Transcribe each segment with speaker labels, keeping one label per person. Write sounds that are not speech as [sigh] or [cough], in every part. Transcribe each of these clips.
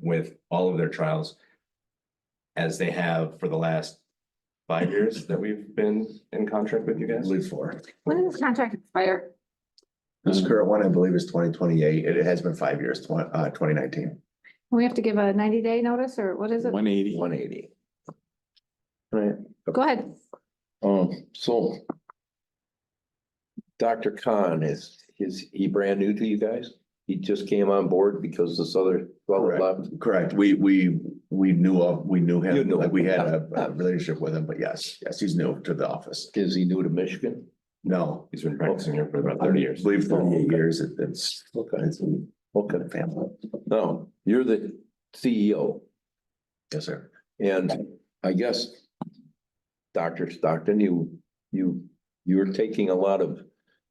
Speaker 1: with all of their trials. As they have for the last five years that we've been in contract with you guys.
Speaker 2: believe four.
Speaker 3: When does this contract expire?
Speaker 2: This current one, I believe, is twenty twenty-eight. It has been five years, twen- uh, twenty nineteen,
Speaker 3: We have to give a ninety day notice or what is it?
Speaker 4: One eighty.
Speaker 2: one eighty.
Speaker 5: Right,
Speaker 3: Go ahead.
Speaker 5: um, so. Dr. Khan is, is he brand new to you guys? He just came on board because this other fellow
Speaker 2: Correct.
Speaker 5: left?
Speaker 2: Correct. We, we, we knew of, we knew
Speaker 5: You
Speaker 2: him,
Speaker 5: knew
Speaker 2: like
Speaker 5: him.
Speaker 2: we had a a relationship with him, but yes, yes, he's new to the office.
Speaker 5: Is he new to Michigan?
Speaker 2: No,
Speaker 1: He's been practicing here for about thirty
Speaker 2: I
Speaker 1: years.
Speaker 2: believe
Speaker 5: Oh,
Speaker 2: thirty
Speaker 5: okay.
Speaker 2: years. it- It's,
Speaker 5: Okay,
Speaker 2: it's a
Speaker 5: okay.
Speaker 2: family.
Speaker 5: No, you're the CEO
Speaker 2: Yes, sir.
Speaker 5: and I guess. Dr. Stockton, you, you, you're taking a lot of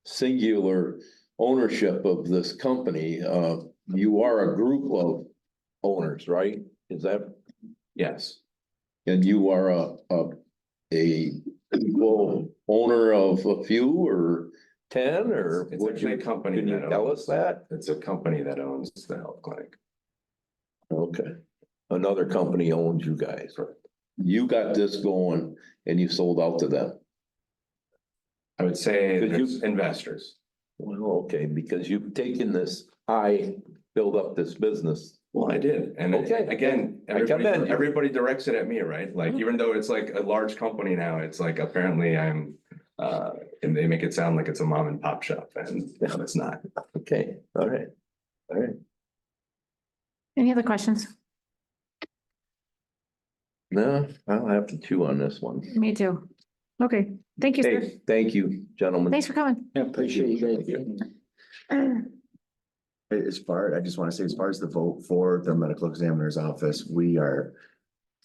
Speaker 5: singular ownership of this company. Uh, you are a group of owners, right? Is that
Speaker 1: Yes,
Speaker 5: And you are a, a, a equal owner of a few or ten or?
Speaker 1: It's
Speaker 5: would
Speaker 1: actually
Speaker 5: you-
Speaker 1: a company
Speaker 5: Can you
Speaker 1: that
Speaker 5: tell
Speaker 1: owns-
Speaker 5: us that?
Speaker 1: it's a company that owns the health clinic.
Speaker 5: Okay, another company owns you guys.
Speaker 1: Correct.
Speaker 5: You got this going and you sold out to them.
Speaker 1: I would say
Speaker 5: Could you-
Speaker 1: there's investors.
Speaker 5: Well, okay, because you've taken this, I build up this business.
Speaker 1: Well, I did, and
Speaker 5: Okay.
Speaker 1: again,
Speaker 5: I commend
Speaker 1: everybody,
Speaker 5: you.
Speaker 1: everybody directs it at me, right? Like, even though it's like a large company now, it's like apparently I'm. Uh, and they make it sound like it's a mom and pop shop, and no, it's not.
Speaker 5: Okay, all right, all right.
Speaker 3: Any other questions?
Speaker 5: No, I'll have to chew on this one.
Speaker 3: Me too. Okay, thank you, sir.
Speaker 5: Hey, thank you, gentlemen.
Speaker 3: Thanks for [clears throat] coming.
Speaker 4: Yeah, appreciate you guys.
Speaker 2: A- As far, I just want to say, as far as the vote for the medical examiner's office, we are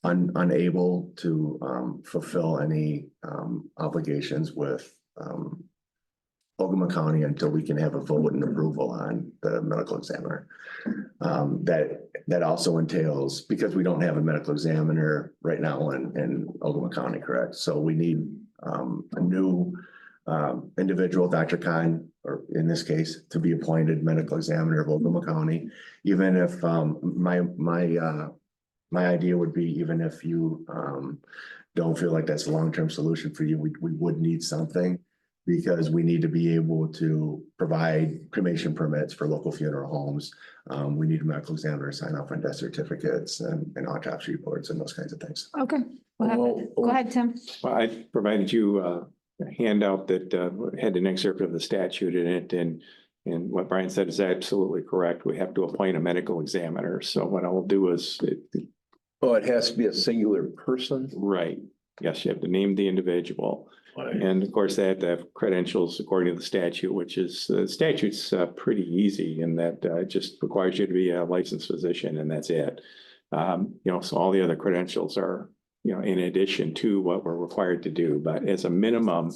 Speaker 2: un- unable to um fulfill any um obligations with um Ogama County until we can have a vote and approval on the medical examiner. Um, that, that also entails, because we don't have a medical examiner right now in, in Ogama County, correct? So we need um a new um, individual, Dr. Khan, or in this case, to be appointed medical examiner of Oklahoma County. Even if, um, my, my, uh, my idea would be even if you, um, don't feel like that's a long-term solution for you, we, we would need something because we need to be able to provide cremation permits for local funeral homes. Um, we need a medical examiner to sign off on death certificates and, and autopsy reports and those kinds of things.
Speaker 3: Okay, we'll have-
Speaker 5: Well,
Speaker 3: go ahead, Tim.
Speaker 4: Well, I provided you uh, a handout that uh, had an excerpt of the statute in it and and what Brian said is absolutely correct. We have to appoint a medical examiner. So what I will do is,
Speaker 5: Oh, it has to be a singular person?
Speaker 4: right, yes, you have to name the individual. And of course, they have to have credentials according to the statute, which is, the statute's uh, pretty easy in that uh, it just requires you to be a licensed physician and that's it. Um, you know, so all the other credentials are, you know, in addition to what we're required to do, but as a minimum,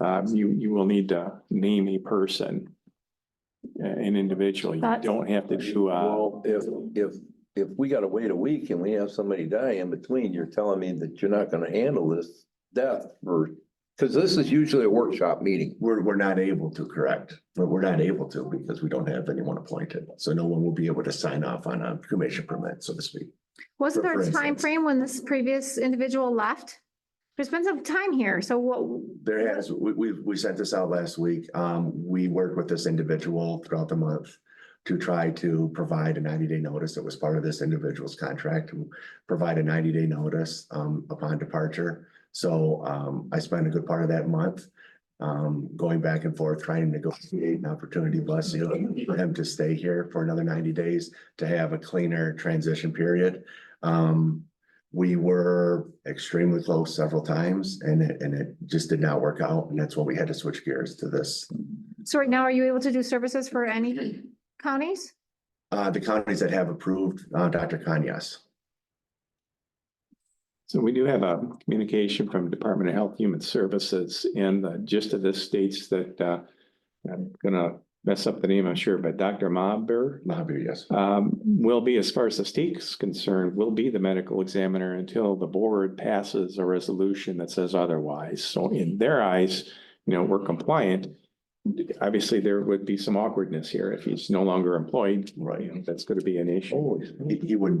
Speaker 4: um, you, you will need to name a person, uh, an individual. You
Speaker 3: Thoughts?
Speaker 4: don't have to do, uh,
Speaker 5: Well, if, if, if we gotta wait a week and we have somebody die in between, you're telling me that you're not gonna handle this death for, cause this is usually a workshop meeting.
Speaker 2: We're, we're not able to, correct, but we're not able to because we don't have anyone appointed. So no one will be able to sign off on a cremation permit, so to speak.
Speaker 3: Wasn't there
Speaker 2: For-
Speaker 3: a
Speaker 2: for
Speaker 3: time
Speaker 2: instance.
Speaker 3: frame when this previous individual left? There's been some time here, so what,
Speaker 2: There has, we, we, we sent this out last week. Um, we worked with this individual throughout the month to try to provide a ninety-day notice that was part of this individual's contract, to provide a ninety-day notice, um, upon departure. So, um, I spent a good part of that month, um, going back and forth, trying to negotiate an opportunity, bless you, for him to stay here for another ninety days to have a cleaner transition period. Um, we were extremely close several times and it, and it just did not work out. And that's why we had to switch gears to this.
Speaker 3: so right now, are you able to do services for any counties?
Speaker 2: Uh, the counties that have approved, uh, Dr. Khan, yes.
Speaker 4: so we do have a communication from Department of Health Human Services and the gist of this states that, uh, I'm gonna mess up the name, I'm sure, but Dr. Maber,
Speaker 2: Mahabir, yes.
Speaker 4: um, will be, as far as the state's concerned, will be the medical examiner until the board passes a resolution that says otherwise. So in their eyes, you know, we're compliant. Obviously, there would be some awkwardness here if he's no longer employed.
Speaker 2: Right.
Speaker 4: You know, That's going to be an issue.
Speaker 5: Always.
Speaker 2: He, he wouldn't be